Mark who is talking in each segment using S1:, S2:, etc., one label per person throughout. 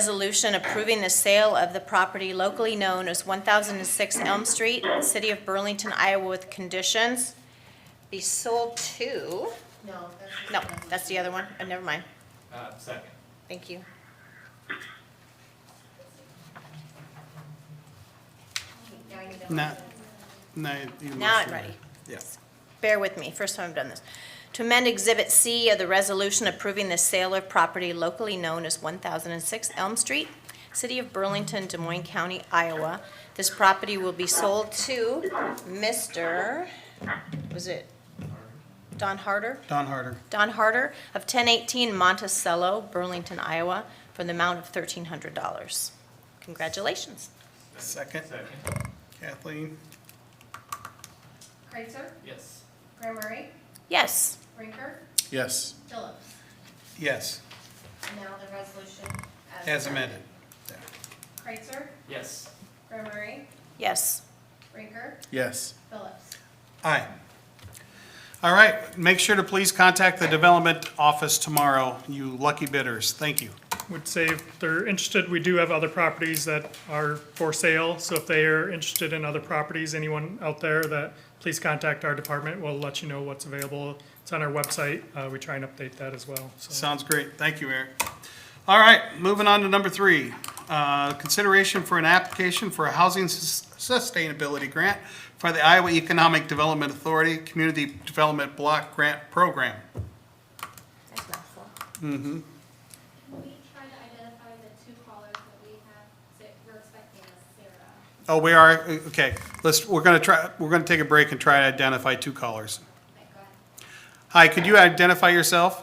S1: resolution approving the sale of the property locally known as 1006 Elm Street, City of Burlington, Iowa, with conditions be sold to,
S2: No, that's.
S1: no, that's the other one, Uh, never mind,
S3: Uh, second.
S1: thank you.
S2: Now you know.
S4: Now, now you.
S1: Now
S4: must
S1: I'm
S4: do it.
S1: ready.
S4: Yeah.
S1: bear with me, first time I've done this. To amend Exhibit C of the resolution approving the sale of property locally known as 1006 Elm Street, City of Burlington, Des Moines County, Iowa. This property will be sold to Mr., was it Don Harder?
S4: Don Harder.
S1: Don Harder of 1018 Monticello, Burlington, Iowa, for the amount of $1,300. Congratulations.
S4: Second.
S3: Second.
S4: Kathleen?
S2: Kreitzer,
S3: Yes.
S2: Graham Murray,
S1: Yes.
S2: Rinker,
S4: Yes.
S2: Phillips.
S4: Yes,
S2: And Now the resolution.
S4: as amended. Yeah.
S2: Kreitzer,
S3: Yes.
S2: Graham Murray,
S1: Yes.
S2: Rinker,
S4: Yes.
S2: Phillips.
S4: Aye. All right, make sure to please contact the development office tomorrow, you lucky bidders. Thank you.
S5: would say if they're interested, we do have other properties that are for sale, so if they are interested in other properties, anyone out there that, please contact our department, we'll let you know what's available. It's on our website, uh, we try and update that as well, so.
S4: Sounds great. Thank you, Eric. All right, moving on to number three. Uh, Consideration for an application for a housing sus- sustainability grant for the Iowa Economic Development Authority Community Development Block Grant Program.
S1: Nice mouthful.
S6: Can we try to identify the two callers that we have, that we're expecting as Sarah?
S4: Oh, we are, okay, let's, we're gonna try, we're gonna take a break and try to identify two callers.
S6: Like, go ahead.
S4: Hi, could you identify yourself?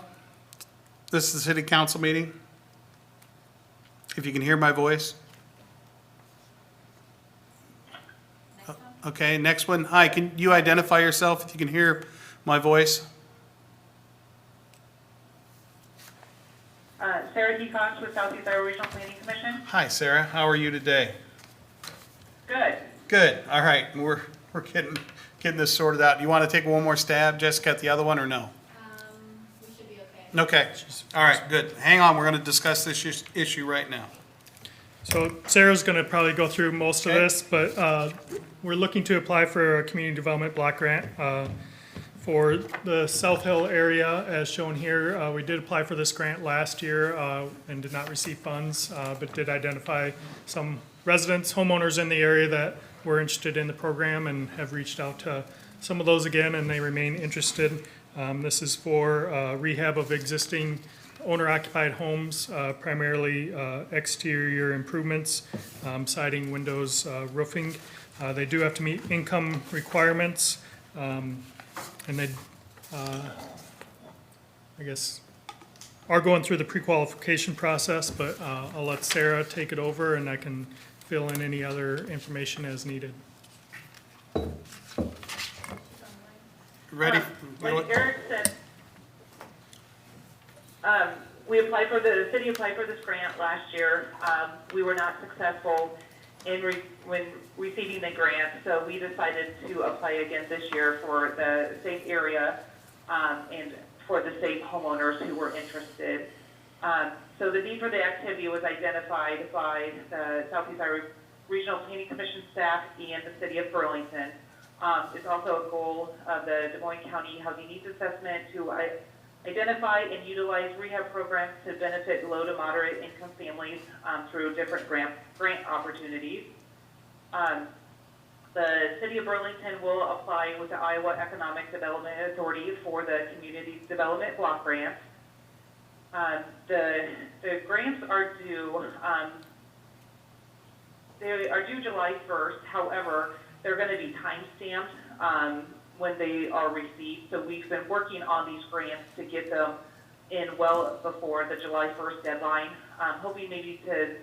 S4: This is the city council meeting. If you can hear my voice. Okay, next one. Hi, can you identify yourself if you can hear my voice?
S7: Uh, Sarah D. Cox with Southeast Iowa Regional Planning Commission.
S4: Hi, Sarah, how are you today?
S7: Good.
S4: Good, all right, we're, we're getting, getting this sorted out. You want to take one more stab, Jessica, at the other one, or no?
S6: Um, we should be okay.
S4: Okay, all right, good. Hang on, we're going to discuss this is- issue right now.
S5: So Sarah's gonna probably go through most of
S4: Okay.
S5: this, but, uh, we're looking to apply for a community development block grant, uh, for the South Hill area, as shown here. Uh, we did apply for this grant last year, uh, and did not receive funds, uh, but did identify some residents, homeowners in the area that were interested in the program and have reached out to some of those again, and they remain interested. Um, this is for, uh, rehab of existing owner-occupied homes, uh, primarily, uh, exterior improvements, um, siding, windows, uh, roofing. Uh, they do have to meet income requirements, and they, uh, I guess, are going through the pre-qualification process, but, uh, I'll let Sarah take it over and I can fill in any other information as needed.
S4: Ready?
S7: Um, Like Eric said, um, we applied for, the the city applied for this grant last year. Um, We were not successful in, re- when receiving the grant, so we decided to apply again this year for the safe area um, and for the safe homeowners who were interested. Um, So the need for the activity was identified by the Southeast Iowa Regional Planning Commission staff and the city of Burlington. Um, It's also a goal of the Des Moines County Housing Needs Assessment to i- identify and utilize rehab programs to benefit low to moderate income families um, through different grant, grant opportunities. Um, The city of Burlington will apply with the Iowa Economic Development Authority for the Community Development Block Grant. Um, The, the grants are due um, they are due July 1st, however, they're going to be timestamped um, when they are received. So we've been working on these grants to get them in well before the July 1st deadline. Um, Hoping maybe to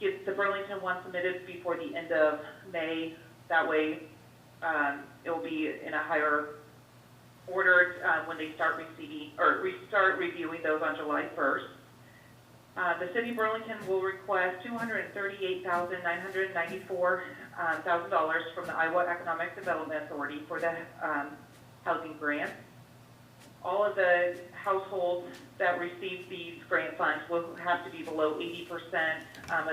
S7: get the Burlington one submitted before the end of May. That way, um, it will be in a higher order uh, when they start receiving, or re- start reviewing those on July 1st. Uh, The city of Burlington will request $238,994 uh, thousand dollars from the Iowa Economic Development Authority for the um, housing grant. all of the households that receive these grant funds will have to be below eighty percent, um,